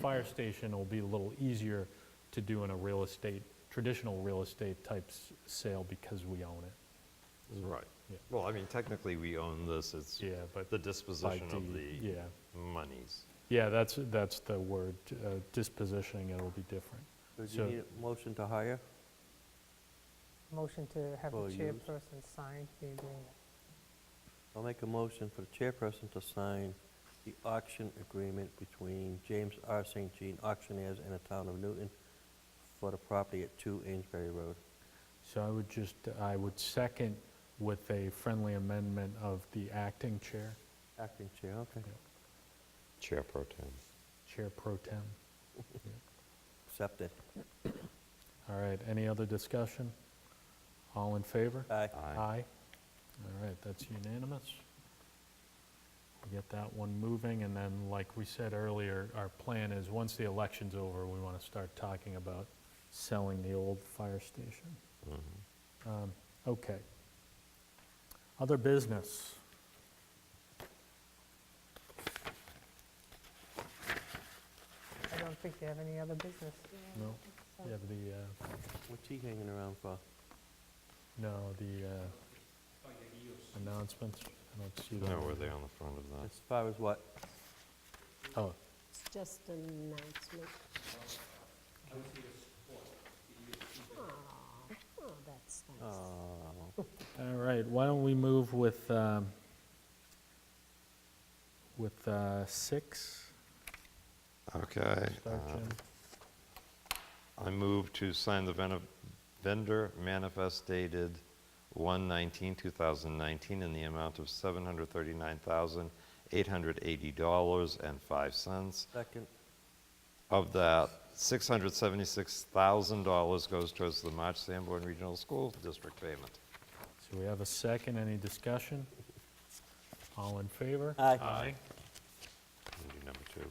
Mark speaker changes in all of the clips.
Speaker 1: fire station will be a little easier to do in a real estate, traditional real estate type s- sale because we own it.
Speaker 2: Right.
Speaker 1: Yeah.
Speaker 2: Well, I mean, technically, we own this, it's
Speaker 1: Yeah, but
Speaker 2: the
Speaker 1: by
Speaker 2: disposition of
Speaker 1: deed,
Speaker 2: the
Speaker 1: Yeah,
Speaker 2: monies.
Speaker 1: yeah, that's, that's the word, uh, dispositioning, it'll be different.
Speaker 3: So do you
Speaker 1: So-
Speaker 3: need a motion to hire?
Speaker 4: Motion to have the
Speaker 3: Will use.
Speaker 4: chairperson sign the agreement.
Speaker 3: I'll make a motion for the chairperson to sign the auction agreement between James R. St. Jean Auctioneers and the Town of Newton for the property at 2 Amesbury Road.
Speaker 1: So I would just, I would second with a friendly amendment of the acting chair,
Speaker 3: Acting chair, okay.
Speaker 2: Chair pro tem.
Speaker 1: Chair Pro Tem.
Speaker 3: Accepted.
Speaker 1: All right, any other discussion? All in favor?
Speaker 3: Aye.
Speaker 1: Aye. All right, that's unanimous. We Get that one moving, and then, like we said earlier, our plan is, once the election's over, we want to start talking about selling the old fire station.
Speaker 2: Mm-hmm.
Speaker 1: Um, Okay. Other business?
Speaker 4: I don't think they have any other business.
Speaker 1: No? You have the, uh,
Speaker 3: What's he hanging around for?
Speaker 1: no, the uh, announcements? I don't see that.
Speaker 2: No, were they on the front of that?
Speaker 3: As far as what?
Speaker 1: Oh,
Speaker 5: It's just an announcement. Aw, Oh, that's nice.
Speaker 3: Oh,
Speaker 1: All right, why don't we move with, um, with uh, six?
Speaker 2: Okay.
Speaker 1: Start,
Speaker 2: uh,
Speaker 1: Jim.
Speaker 2: I move to sign the ven- vendor manifest dated 1/19/2019 in the amount of $739,880.05.
Speaker 3: second,
Speaker 2: Of that, $676,000 goes towards the March Sanborn Regional School District payment.
Speaker 1: So we have a second, any discussion? All in favor?
Speaker 3: Aye.
Speaker 2: Aye. And do number two.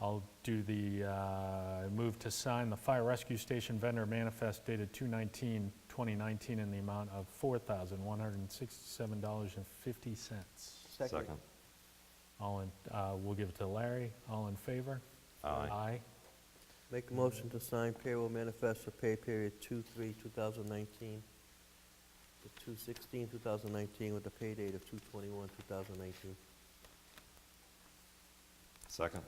Speaker 1: I'll do the, uh, move to sign the fire rescue station vendor manifest dated 2/19/2019 in the amount of $4,167.50.
Speaker 3: second.
Speaker 1: All in, uh, we'll give it to Larry, all in favor?
Speaker 2: Aye.
Speaker 1: Aye.
Speaker 3: Make a motion to sign payroll manifest for pay period 2/3/2019 to 2/16/2019 with a pay date of 2/21/2019.
Speaker 2: Second.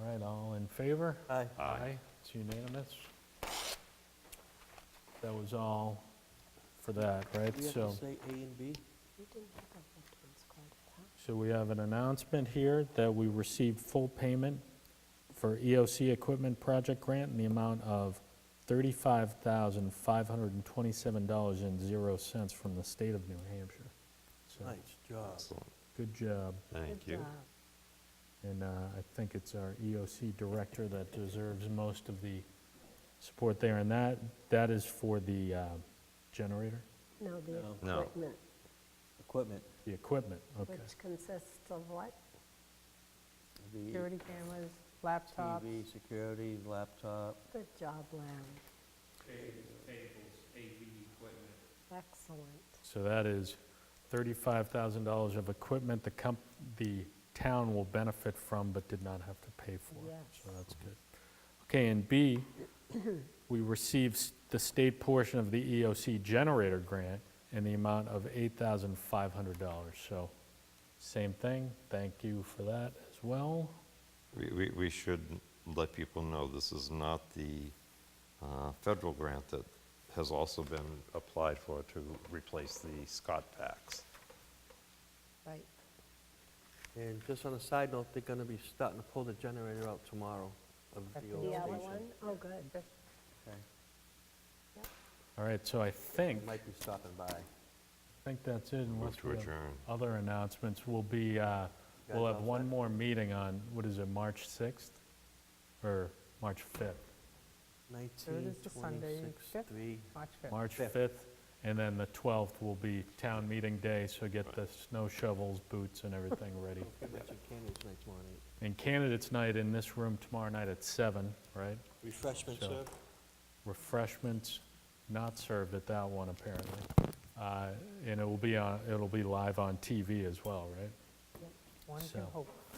Speaker 1: All right, all in favor?
Speaker 3: Aye.
Speaker 2: Aye.
Speaker 1: It's unanimous. That was all for that, right?
Speaker 3: Do we have
Speaker 1: So-
Speaker 3: to say A and B?
Speaker 5: We didn't have a veterans card at that.
Speaker 1: So we have an announcement here that we received full payment for EOC Equipment Project Grant in the amount of $35,527.00 from the state of New Hampshire. So,
Speaker 3: Nice job.
Speaker 2: Excellent.
Speaker 1: good job.
Speaker 2: Thank
Speaker 5: Good
Speaker 2: you.
Speaker 5: job.
Speaker 1: And uh, I think it's our EOC director that deserves most of the support there. And that, that is for the uh, generator,
Speaker 5: No, the
Speaker 3: No.
Speaker 2: No.
Speaker 5: equipment,
Speaker 3: Equipment,
Speaker 1: the equipment, okay.
Speaker 5: which consists of what?
Speaker 3: the
Speaker 4: Security cameras, laptops.
Speaker 3: TV, security, laptop.
Speaker 5: Good job, Larry. Excellent.
Speaker 1: So that is $35,000 of equipment the comp, the town will benefit from but did not have to pay for. So
Speaker 5: Yes.
Speaker 1: that's good. Okay, and B, we received s- the state portion of the EOC generator grant in the amount of $8,500. So same thing, thank you for that as well.
Speaker 2: We- We we should let people know this is not the uh, federal grant that has also been applied for to replace the Scott Pax.
Speaker 5: Right.
Speaker 3: And just on a side note, they're going to be starting to pull the generator out tomorrow of the old
Speaker 5: The other
Speaker 3: station.
Speaker 5: one? Oh, good.
Speaker 3: Okay.
Speaker 1: All right, so I think, I
Speaker 3: Might be stopping by.
Speaker 1: think that's it. unless
Speaker 2: Move to
Speaker 1: we have
Speaker 2: adjourn.
Speaker 1: Other announcements will be, uh, we'll
Speaker 3: Guys,
Speaker 1: have
Speaker 3: all
Speaker 1: one
Speaker 3: set?
Speaker 1: more meeting on, what is it, March 6th? Or March 5th?
Speaker 3: 19,
Speaker 4: is the Sunday
Speaker 3: 26,
Speaker 4: fifth.
Speaker 3: 3.
Speaker 4: Watch it.
Speaker 1: March
Speaker 3: Fifth.
Speaker 1: 5th, and then the 12th will be town meeting day, so get the snow shovels, boots, and everything ready.
Speaker 3: Pretty much your candidates next morning.
Speaker 1: And candidates night in this room tomorrow night at 7, right?
Speaker 3: Refreshments
Speaker 1: So-
Speaker 3: served?
Speaker 1: Refreshments not served at that one, apparently. Uh, And it will be on, it'll be live on TV as well, right?
Speaker 4: One
Speaker 1: So.
Speaker 4: can hope.